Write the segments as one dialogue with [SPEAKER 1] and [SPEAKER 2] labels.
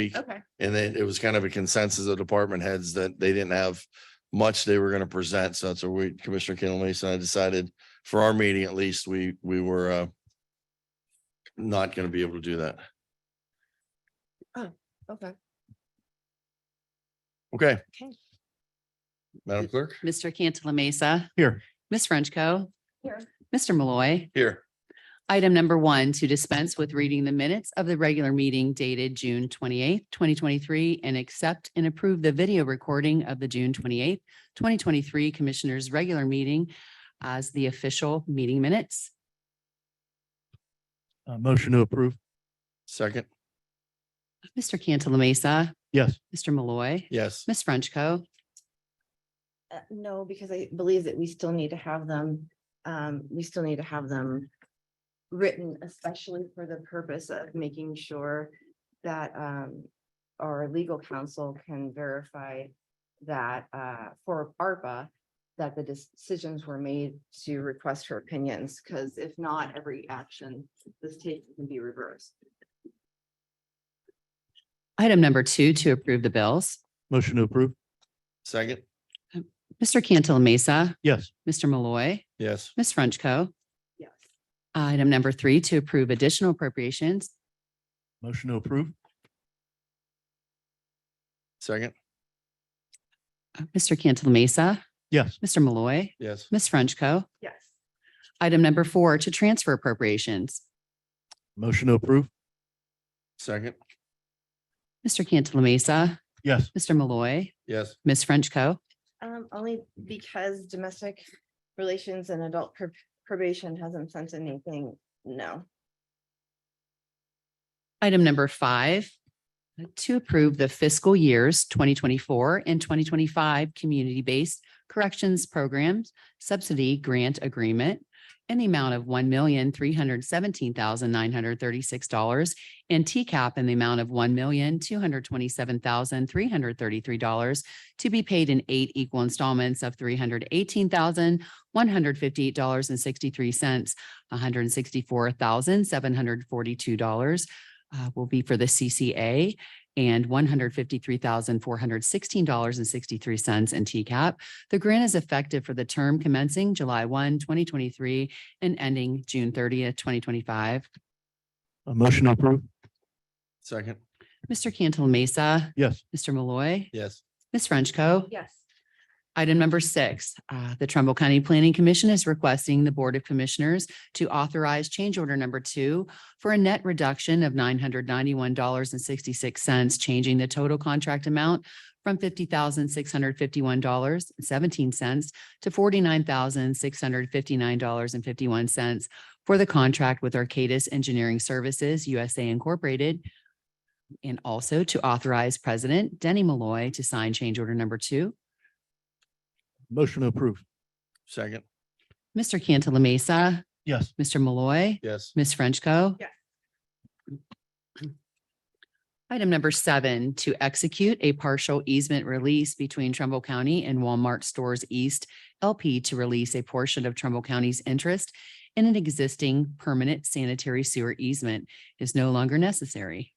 [SPEAKER 1] week.
[SPEAKER 2] Okay,
[SPEAKER 1] And then it was kind of a consensus of department heads that they didn't have much they were gonna present. So that's where we, Commissioner Kendall Mason, and I decided for our meeting at least, we, we were uh not gonna be able to do that.
[SPEAKER 2] okay.
[SPEAKER 1] Okay.
[SPEAKER 2] Okay.
[SPEAKER 1] Madam Clerk?
[SPEAKER 3] Mr. Cantala Mesa.
[SPEAKER 1] Here.
[SPEAKER 3] Ms. Frenchco.
[SPEAKER 2] Here.
[SPEAKER 3] Mr. Malloy.
[SPEAKER 1] Here.
[SPEAKER 3] Item number one, to dispense with reading the minutes of the regular meeting dated June twenty-eighth, twenty twenty-three, and accept and approve the video recording of the June twenty-eighth, twenty twenty-three Commissioners' Regular Meeting as the official meeting minutes.
[SPEAKER 4] Uh, motion to approve.
[SPEAKER 1] Second?
[SPEAKER 3] Mr. Cantala Mesa,
[SPEAKER 4] Yes.
[SPEAKER 3] Mr. Malloy,
[SPEAKER 1] Yes.
[SPEAKER 3] Ms. Frenchco.
[SPEAKER 2] Uh, no, because I believe that we still need to have them, um, we still need to have them written especially for the purpose of making sure that, um, our legal counsel can verify that, uh, for ARPA, that the decisions were made to request her opinions, because if not, every action this takes can be reversed.
[SPEAKER 3] Item number two, to approve the bills.
[SPEAKER 4] Motion to approve.
[SPEAKER 1] Second?
[SPEAKER 3] Mr. Cantala Mesa,
[SPEAKER 4] Yes.
[SPEAKER 3] Mr. Malloy,
[SPEAKER 1] Yes.
[SPEAKER 3] Ms. Frenchco.
[SPEAKER 2] Yes.
[SPEAKER 3] Item number three, to approve additional appropriations.
[SPEAKER 4] Motion to approve.
[SPEAKER 1] Second?
[SPEAKER 3] Mr. Uh, Cantala Mesa,
[SPEAKER 4] Yes.
[SPEAKER 3] Mr. Malloy,
[SPEAKER 1] Yes.
[SPEAKER 3] Ms. Frenchco.
[SPEAKER 2] Yes.
[SPEAKER 3] Item number four, to transfer appropriations.
[SPEAKER 4] Motion to approve.
[SPEAKER 1] Second?
[SPEAKER 3] Mr. Cantala Mesa,
[SPEAKER 4] Yes.
[SPEAKER 3] Mr. Malloy,
[SPEAKER 1] Yes.
[SPEAKER 3] Ms. Frenchco.
[SPEAKER 2] Um, only because domestic relations and adult prob- probation hasn't sent anything, no.
[SPEAKER 3] Item number five, to approve the fiscal years 2024 and 2025 Community-Based Corrections Programs Subsidy Grant Agreement in the amount of $1,317,936 and TCAP in the amount of $1,227,333 to be paid in eight equal installments of $318,158.63, $164,742 uh, will be for the CCA and one hundred fifty-three thousand, four hundred sixteen dollars and sixty-three cents in TCAP. The grant is effective for the term commencing July 1, 2023, and ending June thirtieth, twenty twenty-five.
[SPEAKER 4] A motion to approve.
[SPEAKER 1] Second?
[SPEAKER 3] Mr. Cantala Mesa,
[SPEAKER 4] Yes.
[SPEAKER 3] Mr. Malloy,
[SPEAKER 1] Yes.
[SPEAKER 3] Ms. Frenchco.
[SPEAKER 2] Yes.
[SPEAKER 3] Item number six, uh, the Trumbull County Planning Commission is requesting the Board of Commissioners to authorize change order number two for a net reduction of nine hundred ninety-one dollars and sixty-six cents, changing the total contract amount from fifty thousand six hundred fifty-one dollars seventeen cents to forty-nine thousand six hundred fifty-nine dollars and fifty-one cents for the contract with Arcadis Engineering Services USA Incorporated, and also to authorize President Denny Malloy to sign change order number two
[SPEAKER 4] Motion to approve.
[SPEAKER 1] Second?
[SPEAKER 3] Mr. Cantala Mesa,
[SPEAKER 4] Yes.
[SPEAKER 3] Mr. Malloy,
[SPEAKER 1] Yes.
[SPEAKER 3] Ms. Frenchco.
[SPEAKER 2] Yes.
[SPEAKER 3] Item number seven, to execute a partial easement release between Trumbull County and Walmart Stores East LP to release a portion of Trumbull County's interest in an existing permanent sanitary sewer easement is no longer necessary.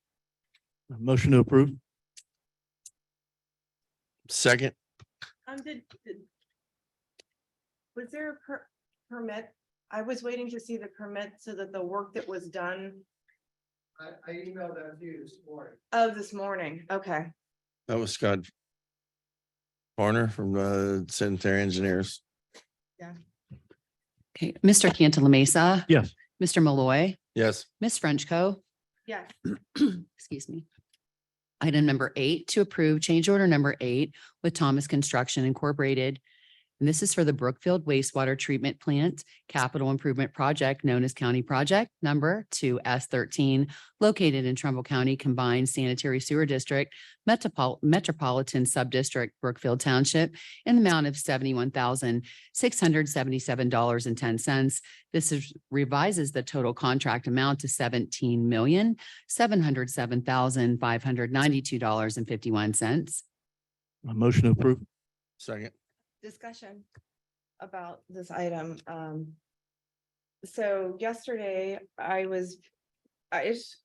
[SPEAKER 4] A motion to approve.
[SPEAKER 1] Second?
[SPEAKER 5] Um, did, did. Was there a per- permit? I was waiting to see the permit so that the work that was done
[SPEAKER 6] I, I emailed that to you this morning.
[SPEAKER 5] of Oh, this morning, okay.
[SPEAKER 1] That was Scott Barner from uh Sanitary Engineers.
[SPEAKER 3] Okay, Mr. Cantala Mesa.
[SPEAKER 4] Yes.
[SPEAKER 3] Mr. Malloy,
[SPEAKER 1] Yes.
[SPEAKER 3] Ms. Frenchco.
[SPEAKER 5] Yes,
[SPEAKER 3] excuse me. Item number eight, to approve change order number eight with Thomas Construction Incorporated. And this is for the Brookfield wastewater treatment plant capital improvement project known as County Project Number Two S thirteen, located in Trumbull County Combined Sanitary Sewer District, Metropol- Metropolitan Subdistrict, Brookfield Township, in the amount of seventy-one thousand, six hundred seventy-seven dollars and ten cents. This is revises the total contract amount to seventeen million, seven hundred seven thousand five hundred ninety-two dollars and fifty-one cents.
[SPEAKER 4] A motion to approve.
[SPEAKER 1] Second.
[SPEAKER 5] discussion about this item, um. So yesterday I was, I just.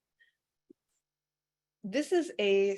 [SPEAKER 2] this is a